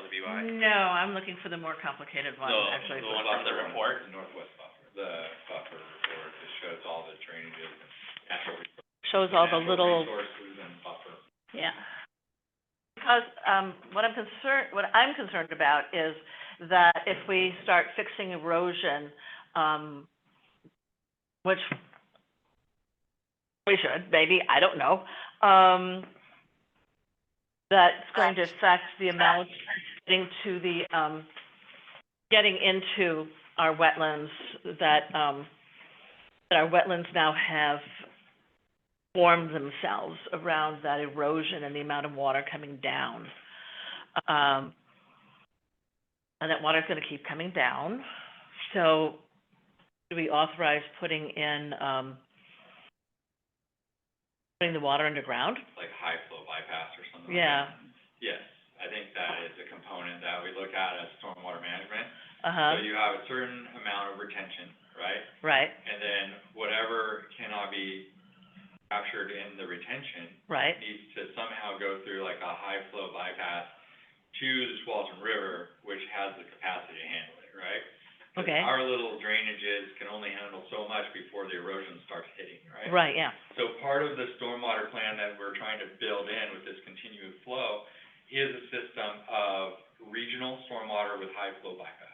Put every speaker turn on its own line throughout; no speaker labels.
UI?
No, I'm looking for the more complicated one,
No,
actually.
the one on the
for-
report?
The northwest buffer, the buffer report, it shows all the drainages and natural. res-
Shows all the
natural
little,
Resources and buffer.
yeah. Because, um, what I'm concerned, what I'm concerned about is that if we start fixing erosion, um, which we should, maybe, I don't know, um, that's going to affect the amount getting to the, um, getting into our wetlands that, um, that our wetlands now have formed themselves around that erosion and the amount of water coming down. Um, and that water's gonna keep coming down, so do we authorize putting in, um, putting the water underground?
like high flow bypass or something like
Yeah,
that. Yes, I think that is a component that we look at as stormwater management.
uh-huh,
So you have a certain amount of retention, right?
right,
And then whatever cannot be captured in the retention
right,
needs to somehow go through like a high flow bypass to the Swalton River, which has the capacity to handle it, right? 'Cause
Okay.
Our little drainages can only handle so much before the erosion starts hitting, right?
right, yeah,
So part of the stormwater plan that we're trying to build in with this continued flow is a system of regional stormwater with high flow bypass.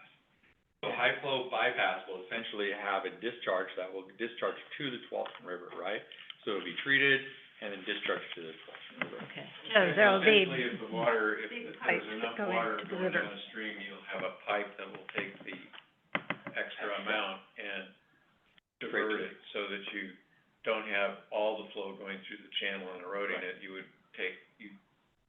So high flow bypass will essentially have a discharge that will discharge to the Tualatin River, right? So it'll be treated and then discharged to the Tualatin River.
okay.
So there'll be
Essentially, if the water, if if
pipes
there's
that
enough
go
water
into the
going
river.
downstream, you'll have a pipe that will take the extra amount and divert it, so that you don't have all the flow going through the channel and eroding it. You would take, you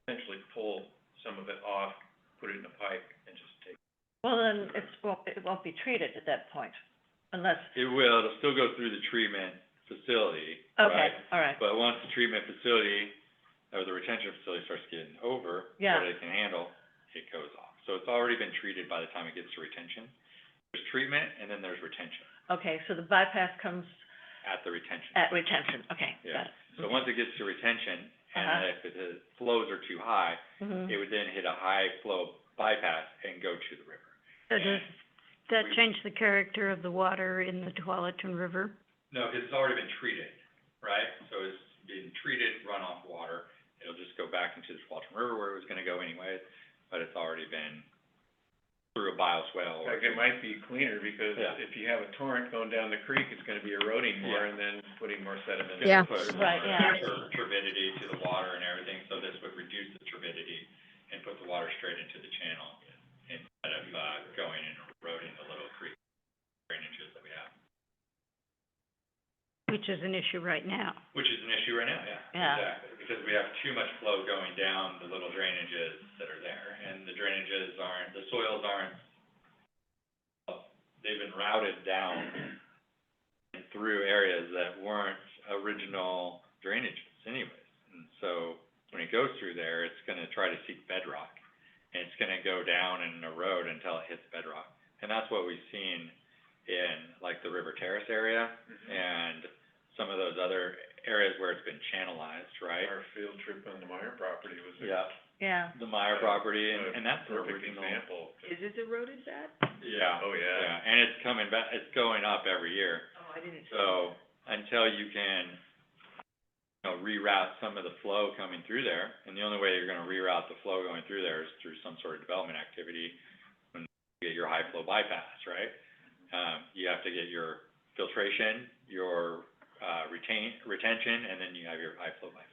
essentially pull some of it off, put it in a pipe, and just take.
Well, then it's, won't- it won't be treated at that point, unless,
It will, it'll still go through the treatment facility,
okay, all right,
But once the treatment facility, or the retention facility starts getting over,
Yeah.
what it can handle, it goes off. So it's already been treated by the time it gets to retention. There's treatment, and then there's retention,
okay, so the bypass comes
at the retention.
at retention, okay, got
Yeah.
it.
So once it gets to retention, and
Uh-huh.
if the flows are too high,
Mhm.
it
Mm-hmm.
would then hit a high flow bypass and go to the river.
So does that
We-
change the character of the water in the Tualatin River?
No, because it's already been treated, right? So it's been treated runoff water. It'll just go back into the Tualatin River where it was gonna go anyways, but it's already been through a bioswale or.
Like, it might be cleaner, because
Yeah.
if you have a torrent going down the creek, it's gonna be eroding more and then putting more sediment. in.
Yeah.
Right, yeah.
Turbidity to the water and everything, so this would reduce the turbidity and put the water straight into the channel instead of, uh, going and eroding the little creek drainages that we have,
Which is an issue right now.
which is an issue right now, yeah.
Yeah.
Exactly, because we have too much flow going down the little drainages that are there, and the drainages aren't, the soils aren't, they've been routed down and through areas that weren't original drainages anyways. And so, when it goes through there, it's gonna try to seek bedrock, and it's gonna go down and erode until it hits bedrock. And that's what we've seen in, like, the River Terrace area, and some of those other areas where it's been channelized, right?
Our field trip on the Meyer property was a,
Yeah,
Yeah,
the Meyer property,
a
and, and that's an
perfect
original.
example.
Is it eroded bad?
Yeah,
Oh,
yeah,
yeah.
and it's coming back, it's going up every year,
Oh, I didn't.
so until you can, you know, reroute some of the flow coming through there, and the only way you're gonna reroute the flow going through there is through some sort of development activity, when you get your high flow bypass, right? Um, you have to get your filtration, your, uh, retain, retention, and then you have your high flow bypass.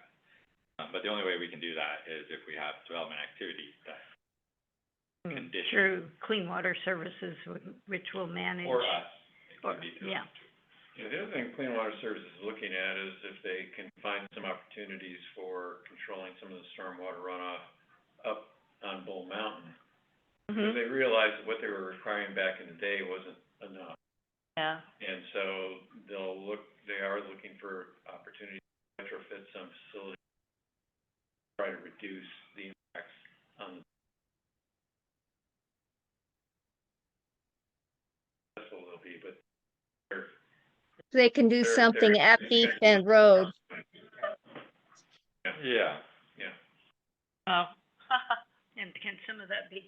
Um, but the only way we can do that is if we have development activity that
mm,
condition,
Through Clean Water Services, wh- which will manage.
or us, it
or-
can be through
yeah.
Yeah, the other thing Clean Water Services is looking at is if they can find some opportunities for controlling some of the stormwater runoff up on Bull Mountain.
Mm-hmm.
Because
mhm,
Mm-hmm.
they realized what they were requiring back in the day wasn't enough.
yeah,
And so they'll look, they are looking for opportunities to retrofit some facilities, try to reduce the impacts on the. That's what they'll be, but they're.
They can do
they're-
something
they're-
at Beach Bend Road.
Yeah.
oh.
Oh. And can some of that be